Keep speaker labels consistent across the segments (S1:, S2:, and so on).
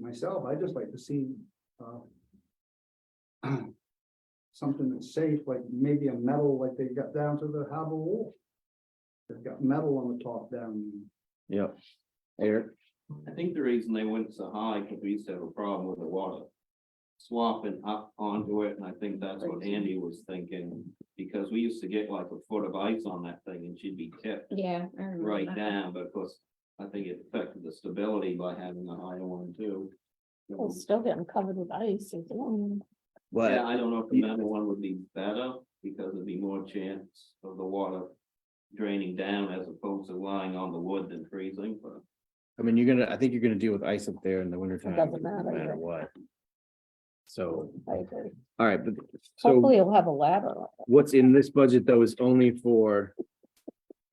S1: myself, I'd just like to see, uh. Something that's safe, like maybe a metal, like they got down to the harbor wall. They've got metal on the top down.
S2: yeah. Eric,
S3: I think the reason they went so high, because we used to have a problem with the water. Swapping up onto it, and I think that's what Andy was thinking, because we used to get like a foot of ice on that thing and she'd be tipped
S4: Yeah. I remember
S3: right
S4: that.
S3: down, but of course. I think it affected the stability by having a higher one too. Um,
S5: Well, it's still getting covered with ice. it's- mm.
S3: Yeah,
S2: but
S3: I don't know if the metal one would be better, because there'd be more chance of the water draining down as opposed to lying on the wood than freezing, but.
S2: I mean, you're gonna, I think you're gonna deal with ice up there in the winter time,
S5: doesn't
S2: no
S5: matter, yeah.
S2: matter what. So,
S5: I agree.
S2: all right, but so
S5: Hopefully you'll have a ladder.
S2: what's in this budget though is only for.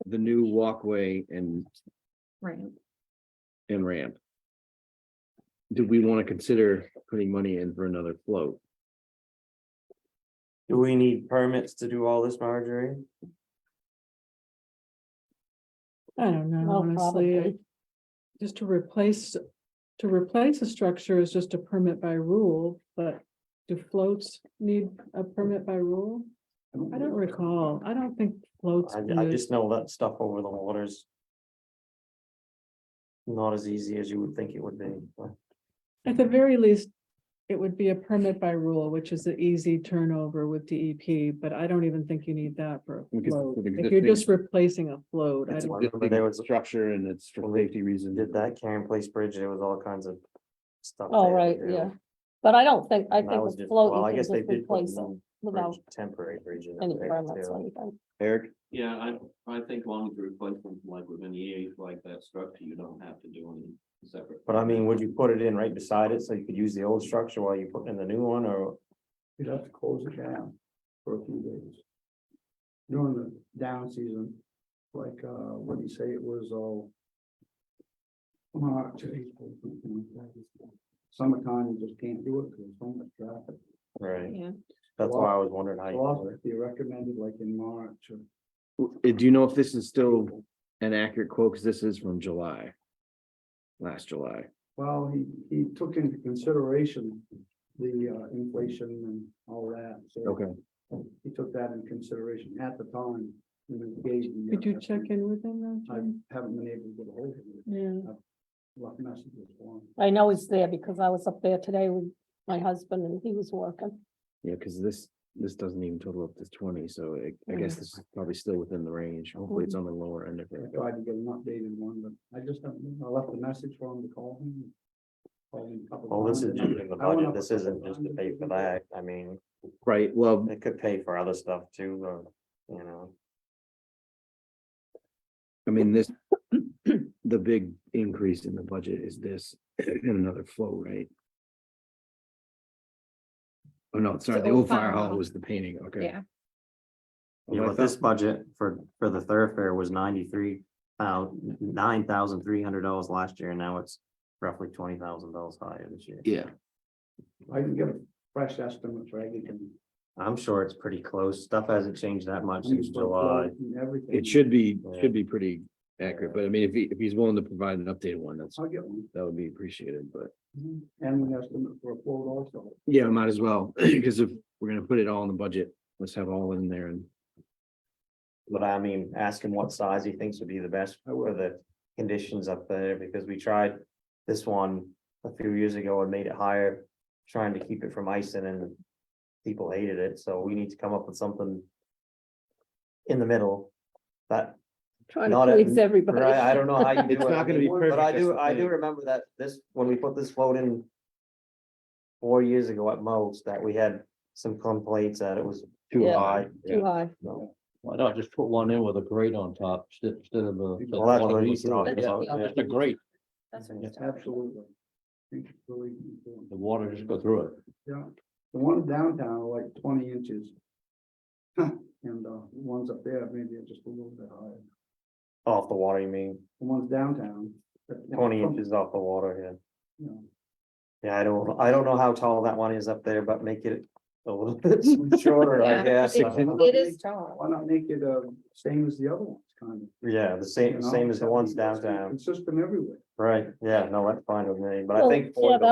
S2: The new walkway and
S4: Right.
S2: and ramp. Do we want to consider putting money in for another float?
S6: Do we need permits to do all this, Marjorie?
S7: I don't know,
S5: Well,
S7: honestly, I-
S5: probably.
S7: just to replace, to replace a structure is just a permit by rule, but. Do floats need a permit by rule? I don't recall, I don't think floats.
S6: I, I
S7: need-
S6: just know that stuff over the waters. Not as easy as you would think it would be. but
S7: At the very least, it would be a permit by rule, which is an easy turnover with DEP, but I don't even think you need that for a
S2: Because
S7: float.
S2: with
S7: If you're
S2: existing-
S7: just replacing a float, I
S6: It's
S7: don't,
S6: a- remember there was-
S2: Structure and it's for
S6: Well, they
S2: safety reasons.
S6: Did that Karen Place Bridge, there was all kinds of stuff.
S5: Oh,
S6: they had
S5: right,
S6: to do,
S5: yeah. But I don't think, I
S6: and that
S5: think
S6: was
S5: with
S6: just-
S5: float,
S6: well, I
S5: you can
S6: guess
S5: just
S6: they did put
S5: replace
S6: a
S5: it
S6: new
S5: without
S6: bridge, Temporary bridge. in
S5: any
S6: there,
S5: permits
S6: too.
S5: or anything.
S2: Eric,
S3: Yeah, I, I think long as you replace them like within the year, like that structure, you don't have to do any separate.
S6: But I mean, would you put it in right beside it so you could use the old structure while you put in the new one or?
S1: You'd have to close it down for a few days. During the down season, like, uh, what do you say, it was all. March, April, something like that. Summertime, you just can't do it because there's so much traffic.
S6: Right,
S4: Yeah.
S6: that's why I was wondering how.
S1: Well,
S6: you
S1: if you recommended like in March or.
S2: w- Uh, do you know if this is still an accurate quote? Because this is from July. Last July.
S1: Well, he, he took into consideration the uh, inflation and all that, so he took that into consideration at the time. and then gave the, uh,
S7: could you check in with them though?
S1: I
S7: Jim?
S1: haven't been able to get a hold of him,
S7: Yeah.
S1: left messages for him.
S5: I know he's there because I was up there today with my husband and he was working.
S2: Yeah, because this, this doesn't even total up to twenty, so I- I guess this is probably still within the range. Hopefully it's on the lower end of
S1: I
S2: it.
S1: tried to get an updated one, but I just haven't, I left a message for him to call him. called him a couple
S6: Well, Oh, this is
S1: times,
S6: just
S1: and
S6: in the
S1: I went
S6: budget.
S1: up a
S6: This
S1: couple
S6: isn't just to
S1: times
S6: pay
S1: and
S6: for
S1: didn't get
S6: that. I mean,
S2: Right, well,
S6: it could pay for other stuff too, but, you know.
S2: I mean, this, the big increase in the budget is this and another flow rate. Oh, no, sorry, the old fire hall was the painting, okay.
S4: Yeah.
S2: Well,
S6: Yeah,
S2: I
S6: but this
S2: thought-
S6: budget for, for the thoroughfare was ninety-three, uh, nine thousand three hundred dollars last year, and now it's roughly twenty thousand dollars higher this year.
S2: Yeah,
S1: I can get a fresh estimate, right? You can-
S6: I'm sure it's pretty close. Stuff hasn't changed that much
S1: you
S6: since
S1: can put
S6: July.
S1: float and Everything.
S2: it should be,
S6: Yeah.
S2: should be pretty accurate, but I mean, if he, if he's willing to provide an updated one, that's,
S1: I'll get one,
S2: that would be appreciated, but.
S1: Mhm. and an estimate for a quote also.
S2: Yeah, might as well, because if we're gonna put it all in the budget, let's have all in there and.
S6: But I mean, ask him what size he thinks would be the best for the conditions up there, because we tried this one a few years ago and made it higher, trying to keep it from icing and people hated it, so we need to come up with something in the middle that
S5: Trying
S6: Not
S5: to
S6: at-
S5: please everybody.
S6: Right, I don't know how you do it.
S2: It's not gonna be
S6: But I
S2: perfect, that's
S6: do,
S2: the
S6: I do
S2: thing.
S6: remember that this, when we put this float in. Four years ago at most, that we had some complaints that it was too
S5: Yeah.
S6: high.
S5: Too high.
S8: Why not just put one in with a grate on top sti- instead of a.
S6: Well, that's what he's talking
S8: Yeah,
S6: about.
S8: Just a grate,
S4: That's what he's talking about.
S1: Absolutely. Think it's really important.
S8: the water just go through it.
S1: Yeah, the one downtown are like twenty inches. And uh, the ones up there, maybe are just a little bit higher.
S6: Off the water, you mean,
S1: The ones downtown. that-
S6: twenty inches off the water, yeah.
S1: you know,
S6: Yeah, I don't, I don't know how tall that one is up there, but make it a little bit shorter, I
S4: Yeah,
S6: guess.
S4: it's- It is tall.
S1: Why not make it uh, same as the other ones, kind of?
S6: Yeah, the
S1: you
S6: same,
S1: know?
S6: same as the ones
S1: It's gonna be
S6: downtown,
S1: Consistent everywhere.
S6: right, yeah, no, that's fine with me, but I
S5: Well,
S6: think.
S5: yeah,
S6: four
S5: that